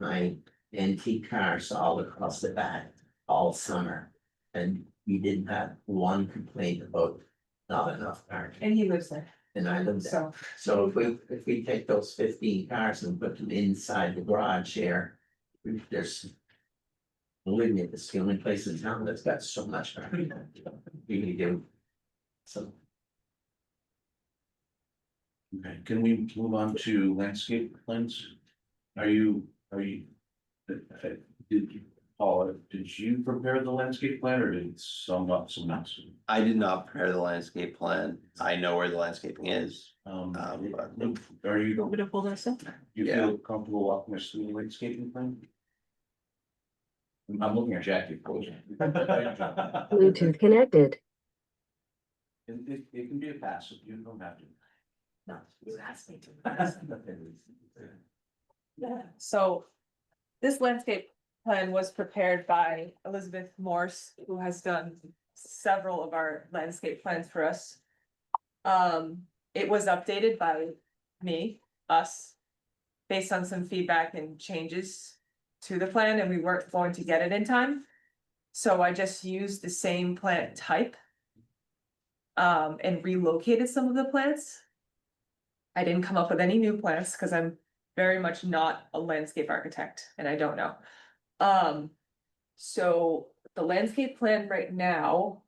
my antique cars all across the back all summer. And we didn't have one complaint about not enough parking, And he lives there, and I lived there. so, So if we, if we take those fifteen cars and put them inside the garage here, we- there's. Believe me, it's the only place in town that's got so much parking, we can do. So, Okay, can we move on to landscape plans? Are you, are you? Did you, Paul, did you prepare the landscape plan or did someone, someone else? I did not prepare the landscape plan. I know where the landscaping is. Um, Um, are You you, want me to pull this up? you Yeah. feel comfortable walking us through the landscaping plan? I'm looking at Jackie, of course. It, Bluetooth connected. it, it can be a passive, you don't have to. no, you asked me to. Yeah. So this landscape plan was prepared by Elizabeth Morse, who has done several of our landscape plans for us. Um, it was updated by me, us, based on some feedback and changes to the plan, and we weren't going to get it in time. So I just used the same plant type um, and relocated some of the plants. I didn't come up with any new plants because I'm very much not a landscape architect and I don't know. Um, so the landscape plan right now.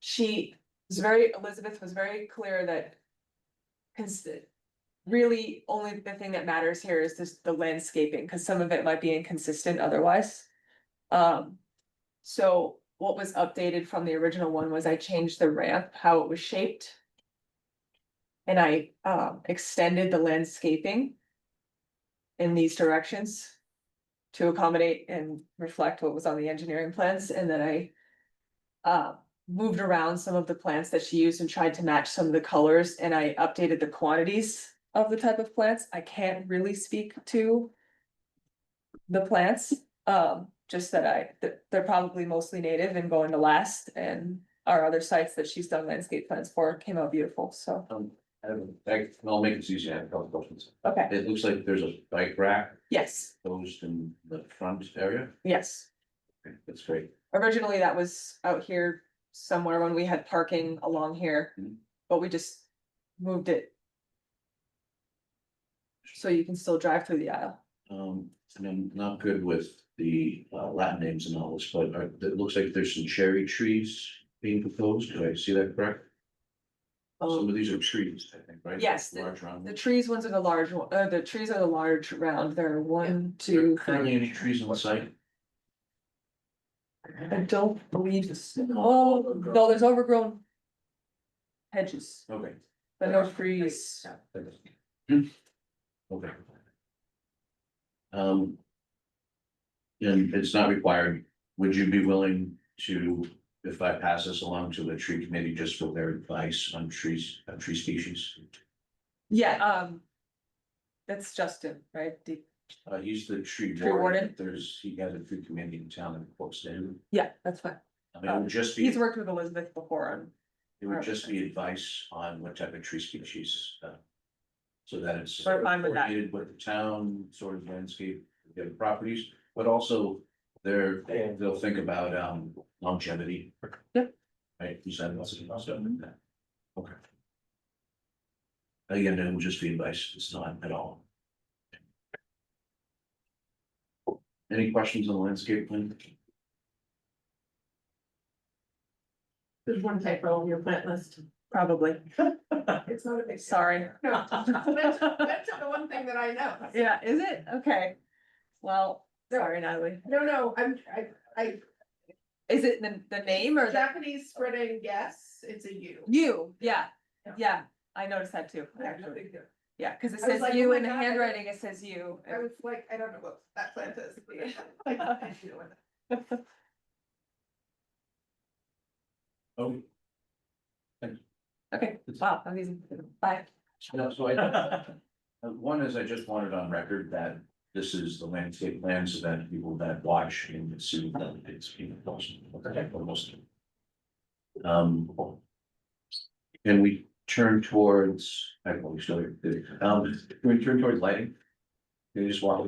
She was very, Elizabeth was very clear that. Cause really only the thing that matters here is this, the landscaping, cause some of it might be inconsistent otherwise. Um, so what was updated from the original one was I changed the ramp, how it was shaped. And I um extended the landscaping. In these directions. To accommodate and reflect what was on the engineering plans, and then I. Uh, moved around some of the plants that she used and tried to match some of the colors, and I updated the quantities of the type of plants. I can't really speak to. The plants, um, just that I, that they're probably mostly native and going to last, and our other sites that she's done landscape plans for came out beautiful, so, I don't- I- I'll make it easy, I have a couple questions. okay. It looks like there's a bike rack Yes, Those in the front area, yes. Okay, that's great. Originally, that was out here somewhere when we had parking along here, Mhm. but we just moved it. So you can still drive through the aisle. Um, and I'm not good with the uh, Latin names and all this, but are- it looks like there's some cherry trees being proposed, did I see that correct? Some of these are trees, I think, right? Oh. Yes, the- Large round. Um, The ones. trees ones are the large, one- uh, the trees are the large round. There are one, Are there two, Currently three. any trees on site? I don't believe, oh, no, there's overgrown. Hedges, Okay, but no trees. okay. Um. And it's not required, would you be willing to, if I pass this along to the tree committee, just for their advice on trees, on tree species? Yeah, um. That's Justin, right? The- Uh, he's the tree Tree warden? warden, there's, he has a tree committee in town that quotes him. Yeah, that's fine. I mean, it would just be, He's it worked with Elizabeth before on would just be advice on what type of tree species, uh. So that it's. We're fine with that. coordinated With the town, sort of landscape, their properties, but also they're, they'll think about um longevity. Yep. Mm-hmm. Right, you said lots of stuff like that. Okay. Again, it would just be advice, it's not at all. Any questions on the landscape plan? There's one typo on your plant list. Probably, It's not a big. sorry. No, that's, that's the one thing that I know. Yeah, is it? Okay. Well, sorry, Natalie. No, no, I'm, I, Is it the, the name I, or that? Japanese spreading, yes, it's a U. You, yeah, Yeah. yeah, I noticed that too. Yeah, no actually. big deal. Yeah, cause it I was says like, you oh my in the God, I don't- handwriting, it says you. I was like, I don't know what that plant is. but I- I don't know what that- Oh, Okay, wow, amazing. Bye. no, so I. Uh, One is I just wanted on record that this is the landscape plan so that people that watch can see that it's being posted. Okay, almost. Um. Can we turn towards, I don't know, we started, um, can we turn towards lighting? Can you just walk